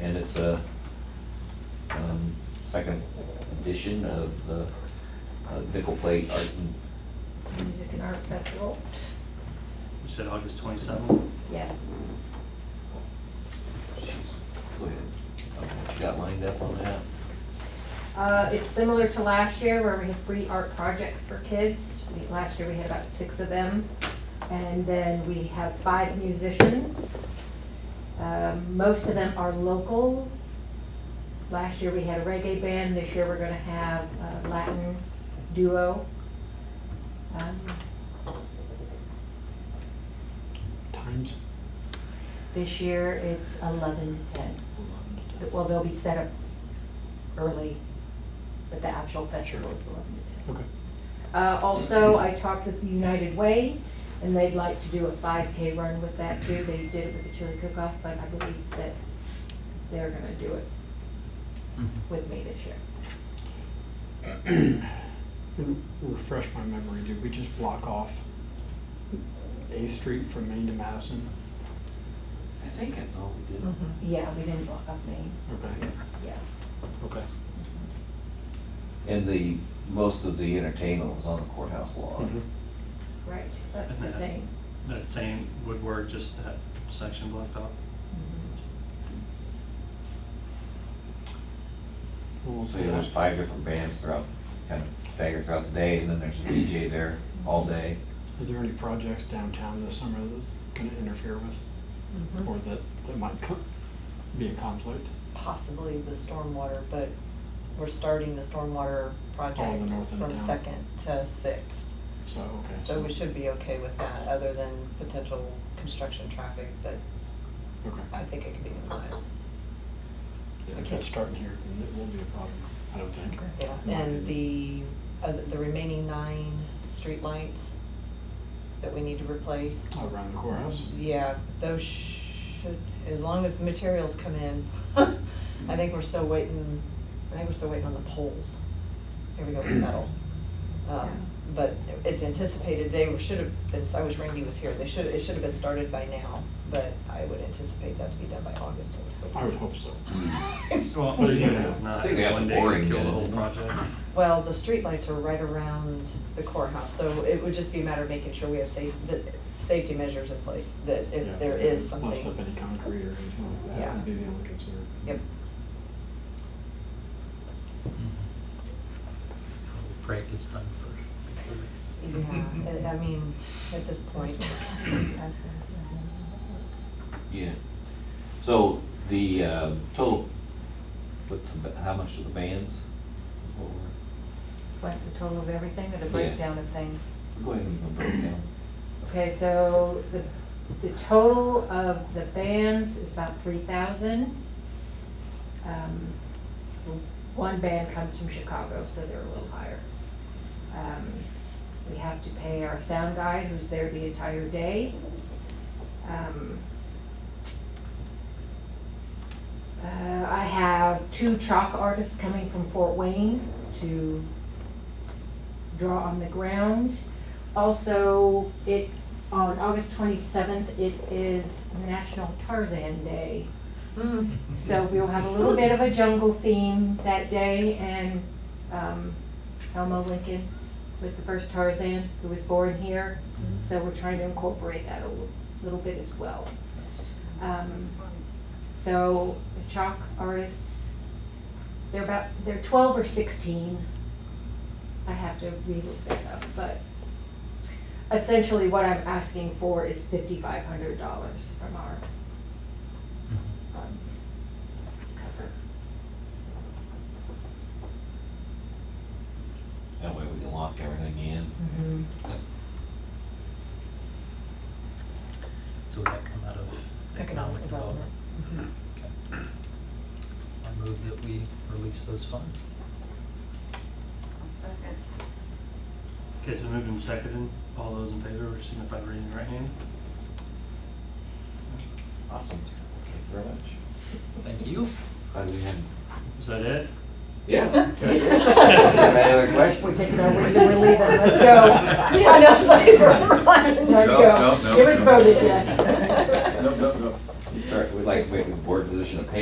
and it's a um, second edition of the uh, Nickel Plate Art and Music and Art Festival? You said August twenty-seven? Yes. She's, go ahead. What you got lined up on that? Uh, it's similar to last year where we had free art projects for kids. We- Last year we had about six of them. And then we have five musicians. Um, most of them are local. Last year we had a reggae band, this year we're gonna have a Latin duo. Um, Times? This year it's eleven to ten. Well, they'll be set up early, but the actual festival is eleven to ten. Okay. Uh, also, I talked with United Way, and they'd like to do a five K run with that too. They did it with the chili cook-off, but I believe that they're gonna do it Mm-hmm. with me this year. And Refresh my memory, did we just block off A Street from Main to Madison? I think that's all we did. Yeah, we didn't block up Main, Okay, yeah. okay. And the, most of the entertainment was on the courthouse lawn. Mhm. Right, that's the same. That same woodwork, just that section blocked off? Well, So there's five different bands throughout, kind of staggered throughout the day, and then there's a DJ there all day. Is there any projects downtown this summer that's gonna interfere with, Mhm. Mm-hmm. or that, that might co- be a conflict? possibly the stormwater, but we're starting the stormwater On project the north end from of town. second to sixth. So, okay. So we should be okay with that, other than potential construction traffic, but Okay. I think it can be minimized. Yeah, If Okay. it's starting here, then it won't be a problem, I don't think. Yeah, In my and opinion. the, other- the remaining nine streetlights that we need to replace. Around the courthouse? Yeah, those should, as long as the materials come in, I think we're still waiting, I think we're still waiting on the poles. Here we go with metal. Um, But it's anticipated, they should have been, I wish Randy was here, they should, it should have been started by now, but I would anticipate that to be done by August. I would hope so. It's- Well, Well, even if yeah. it's not, I think it's they have one the day boring to kill the whole end. project. Well, the streetlights are right around the courthouse, so it would just be a matter of making sure we have safe, the, safety measures in place, that Yeah, if there is Bust something. up any concrete or anything like that Yeah. would be the only concern. Yep. Pray it gets done first. before we- Yeah, I I mean, at this point. Mm-hmm. Yeah. So the uh, total, what's, the ba- how much of the bands? What were- What, the total of everything or the Yeah. breakdown of things? Go ahead and break it down. Okay, so the, the total of the bands is about three thousand. Um, One band comes from Chicago, so they're a little higher. Um, We have to pay our sound guy who's there the entire day. Um, uh, I have two chalk artists coming from Fort Wayne to draw on the ground. Also, it, on August twenty-seventh, it is National Tarzan Day. So we'll have a little bit of a jungle theme that day and, um, Elmo Lincoln was the first Tarzan who was born here. So we're trying to incorporate that a little- little bit as well. Um, so the chalk artists, they're about, they're twelve or sixteen. I have to relook that up, but essentially what I'm asking for is fifty-five hundred dollars from our Mm-hmm. funds. Cover. That way we can lock everything in. So would that come out of economic development? Okay. I move that we release those funds. Okay, so moved and seconded, all those in favor, signify by raising your right hand. Awesome. Okay, very much. Thank you. Glad we had. Is that it? Yeah. Any Yeah, other questions? We're taking our wins and we're leaving, let's go. I know, so it's running. Let's No, go. no, no, It was no. voted yes. Nope, nope, nope. All right, We'd like to make this board position a paid